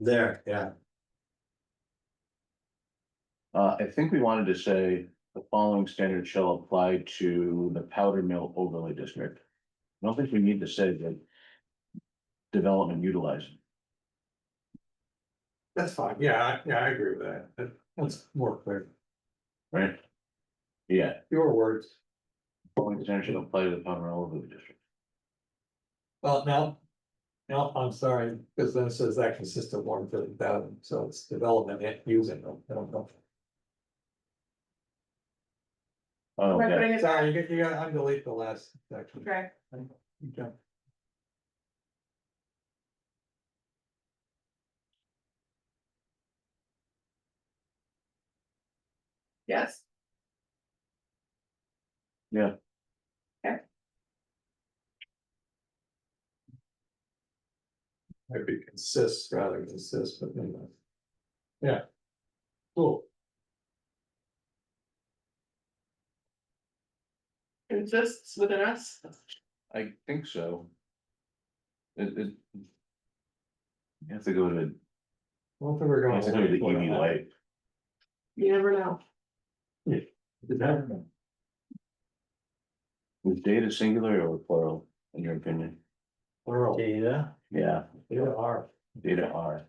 There, yeah, Uh, I think we wanted to say the following standard shall apply to the powder mill overlay district. I don't think we need to say that. Development utilized, that's fine, yeah, I- yeah, I agree with that, That- that's more clear, right? Yeah, your words. following standard shall apply to the powder mill overlay district. Well, now, now, I'm sorry, because then it says that consists of one fifty thousand, so it's development and using them, I don't know. Oh, We're Okay, putting it Sorry, you got, you got, undelete the last section. Okay. You jumped. Yes. Yeah. Okay. Maybe consists rather than consists, but anyway. Yeah. Cool. Consists within us. I think so. It, it. You have to go to, I don't think we're I going. have to go to the EV light, You never know. was data singular or plural, in your opinion? Plural, Data, Yeah, they are. data are,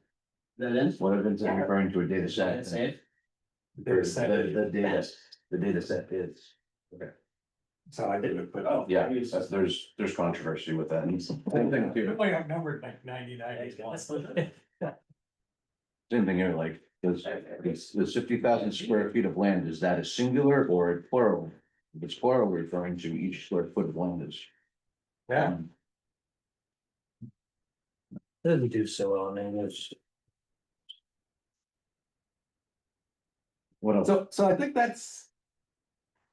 that is. what if it's referring to a data set? That's it. They're The, second, the data, the data set is, that's how I did it, but. Oh, yeah, that's- there's, there's controversy with that. Same thing too, Only I'm numbered like ninety-nine. same thing here, like, does, does does fifty thousand square feet of land, is that a singular or a plural? If it's plural, we're referring to each square foot of land is. Um, Yeah, Doesn't do so well in English. What else? so, so I think that's.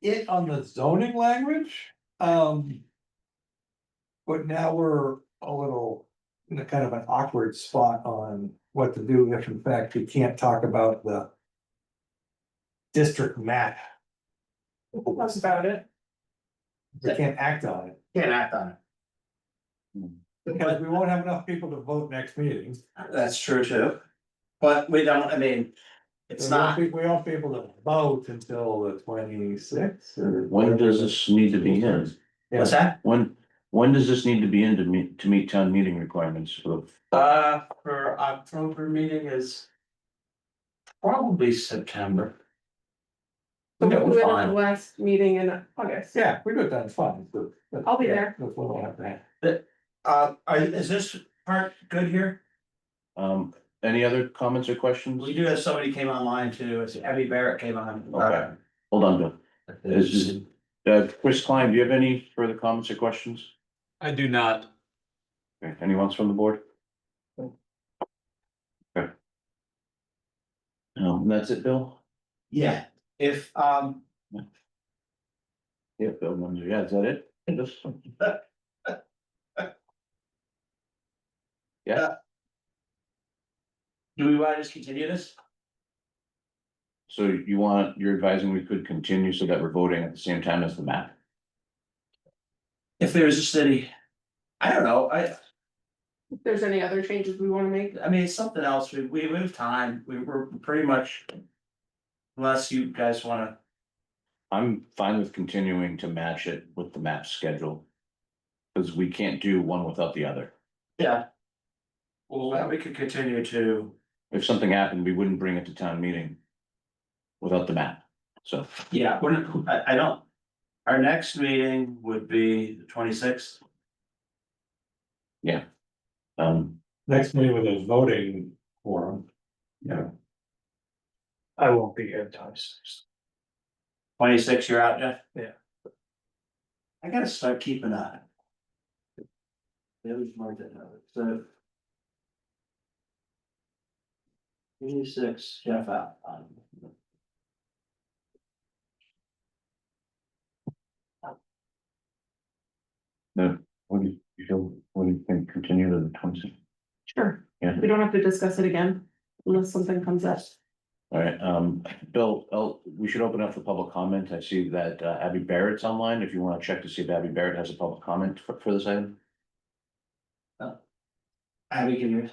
It on the zoning language, um. But now we're a little in a kind of an awkward spot on what to do if in fact we can't talk about the. District map, That's about it. we can't act on it, Can't act on it. because we won't have enough people to vote next meeting. That's true too. But we don't, I mean, it's We won't not, be- We won't be able to vote until the twenty-sixth or. When does this need to be in? what's that? When, when does this need to be in to meet, to meet town meeting requirements of, Uh, for October meeting is probably September. We'll Yeah, do we're it at the fine. last meeting in August. Yeah, we do it then, it's fine. But- but- I'll be there. That's what I'll have to have. Uh, are, is this part good here? um, any other comments or questions? We do have somebody came online too, it's Abby Barrett came on. Okay. Hold on, Bill. This is- Uh, Chris Klein, do you have any further comments or questions? I do not. Okay, Anyone else from the board? Okay. Um, that's it, Bill? Yeah, if, um, Yeah, Bill, Munzer. yeah, is that it? This- do we want to just continue this? So you want, you're advising we could continue so that we're voting at the same time as the map? If there's a city, I don't know, I, If there's any other changes we wanna make, I mean, it's something else, we, we have time, we were pretty much. Unless you guys wanna, I'm fine with continuing to match it with the map schedule. Cause we can't do one without the other. yeah. Well, we could continue to, If something happened, we wouldn't bring it to town meeting. Without the map, so, yeah, we're, not- I, I don't. Our next meeting would be the twenty sixth, um, Next meeting with a voting forum. Yeah. I won't be here times. twenty sixth, you're out, Jeff? Yeah. I gotta start keeping on. It was more than, so. Twenty six, Jeff out. um, what do you- you feel, what do you think, continue to the twenty sixth? sure, Yeah. we don't have to discuss it again unless something comes up. All right, um, Bill, oh, we should open up for public comment. I see that uh, Abby Barrett's online. If you wanna check to see if Abby Barrett has a public comment for, for this item. Abby, can you?